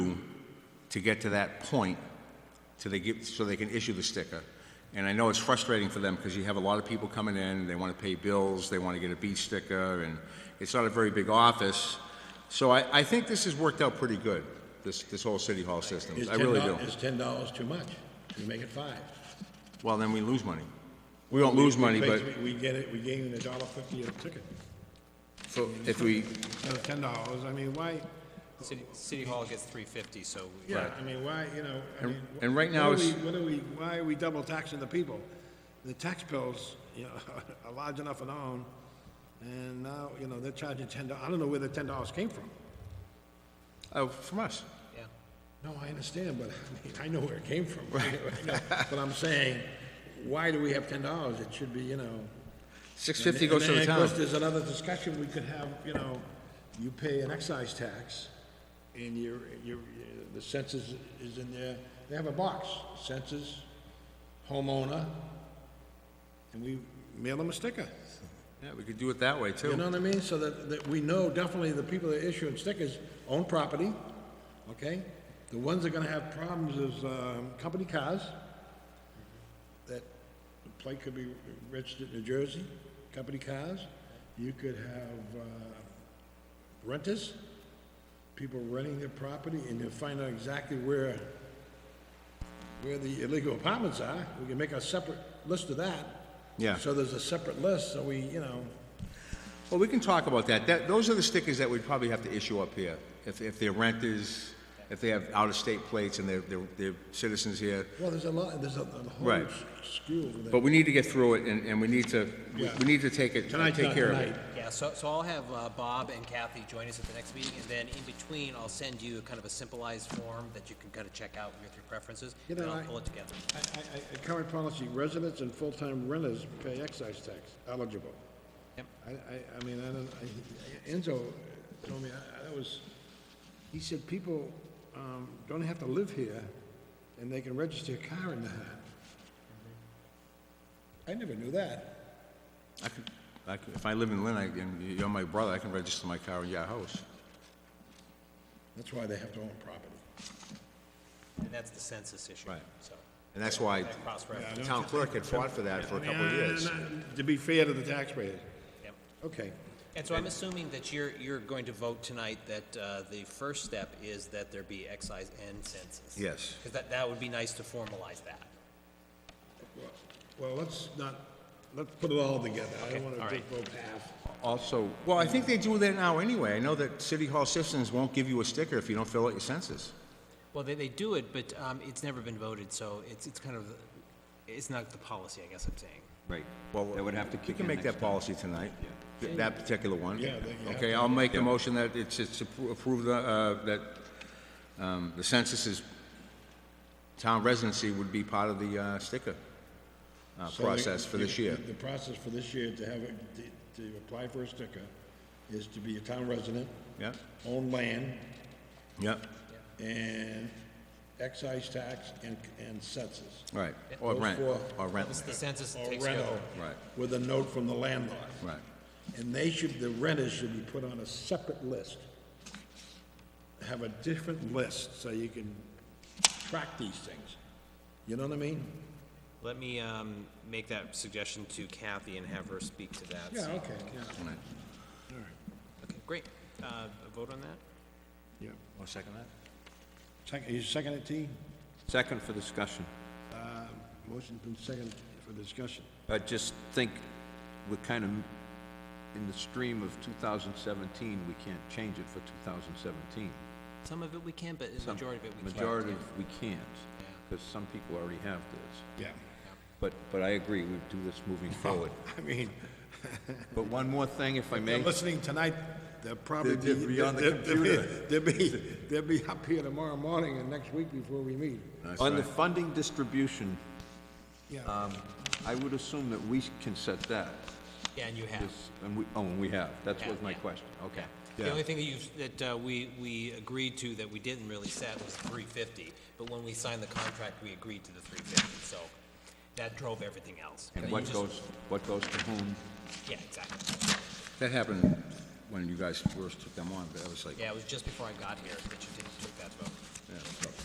to get to that point, so they give, so they can issue the sticker. And I know it's frustrating for them, because you have a lot of people coming in, they want to pay bills, they want to get a beach sticker, and it's not a very big office. So I, I think this has worked out pretty good, this, this whole city hall system. Is I really do. $10 Is ten dollars too much? Can you make it five? Well, then we lose money. We won't lose money, We pay but three- We get it, we gain a dollar fifty a ticket. for- if we, So ten dollars, I mean, why, City, City Hall gets three fifty, so. yeah, I mean, why, you know, I mean. wh- and right what now are it's- we- What are we, why are we double taxing the people? The tax bills, you know, are large enough and on, and now, you know, they're charging ten dollars. I don't know where the ten dollars came from. oh, from us. Yeah. No, I understand, but I mean, I know where it came from. I know, But I'm saying, why do we have ten dollars? It should be, you know. Six fifty And- goes to and the Of town. course, there's another discussion we could have, you know, you pay an excise tax, and your, your, the census is in there, they have a box, census, homeowner, and we mail them a sticker. Yeah, we could do it that way, You too. know what I mean? So that, that we know definitely the people that are issuing stickers own property, okay? The ones that are gonna have problems is, um, company cars, that the plate could be registered in New Jersey, company cars. You could have, uh, renters, people renting their property, and you'll find out exactly where, where the illegal apartments are. We can make a separate list of that. Yeah. So there's a separate list, so we, you know, Well, we can talk about that. That, those are the stickers that we'd probably have to issue up here. If, if they're renters, if they have out-of-state plates and they're, they're, they're citizens here. Well, there's a lot, there's a, a whole Right. s- skew over But there. we need to get through it, and, and we need to, we- Yeah. we need to take it, Tonight's take not care of it. tonight. Yeah, so, so I'll have uh, Bob and Kathy join us at the next meeting, and then in between, I'll send you kind of a simplified form that you can kind of check out with your preferences, You and know, I'll I- pull it together. I, I, I, current policy, residents and full-time renters pay excise tax, eligible. Yep. I, I, I mean, I don't, I, Enzo told me, I, I was, he said people, um, don't have to live here, and they can register a car in that. I never knew that. I could, I could, if I live in Lynn, I, and you're my brother, I can register my car in your house. That's why they have to own property. And that's the census issue, Right. so. And that's why That cross-reference. the town clerk had fought for that for a couple of years. To be fair to the taxpayers. Yep. Okay. And so I'm assuming that you're, you're going to vote tonight that uh, the first step is that there be excise and census. Yes. Because that, that would be nice to formalize that. Well, let's not, let's put it all together. I don't all want to right. take both half. Also, well, I think they do that now anyway. I know that City Hall Citizens won't give you a sticker if you don't fill out your census. Well, they, they do it, but um, it's never been voted, so it's, it's kind of, it's not the policy, I guess I'm saying. Right. Well, That would have to You kick can in make next that time. policy tonight, th- that particular one. Yeah, that you have Okay, I'll make the motion that it's, it's appro- approved, uh, that, um, the census is, town residency would be part of the, uh, sticker, uh, So the- process for this the- year. The process for this year to have, a- to- to apply for a sticker is to be a town resident, Yep, own land, yep, and excise tax and, and census. right, or Those rent, four. or rent, It's the census that Or takes care of rental. it. Right. With a note from the landlord. right. And they should, the renters should be put on a separate list. Have a different list so you can track these things. You know what I mean? Let me um, make that suggestion to Kathy and have her speak to that. Yeah, so- okay, yeah. Right. Okay, great. Uh, a Vote on that? Yeah. Wanna second that? Second, you second it, T? Second for discussion. Motion's been seconded for discussion. I just think we're kind of in the stream of 2017, we can't change it for 2017. Some of it we can, but the Some- majority of it we can't. Majority, of- we can't, because some people already have this. Yeah. But, but I agree, we do this moving forward. I mean, But one more thing, if I may. listening tonight, they'll probably be... They'll be on the they'll- they'll be- computer. They'll be, they'll be up here tomorrow morning and next week before we meet. That's On the right. funding distribution, um, Yeah. I would assume that we can set that. Yeah, and you have. This- And we, oh, and we have. That was my Yeah, yeah. question. Okay. The only thing that you, that uh, we, we agreed to that we didn't really set was three fifty, but when we signed the contract, we agreed to the three fifty, so that drove everything else. But And you what just- goes, what goes to whom? Yeah, exactly. That happened when you guys first took them on, but that was like, Yeah, it was just before I got here that you didn't take that vote.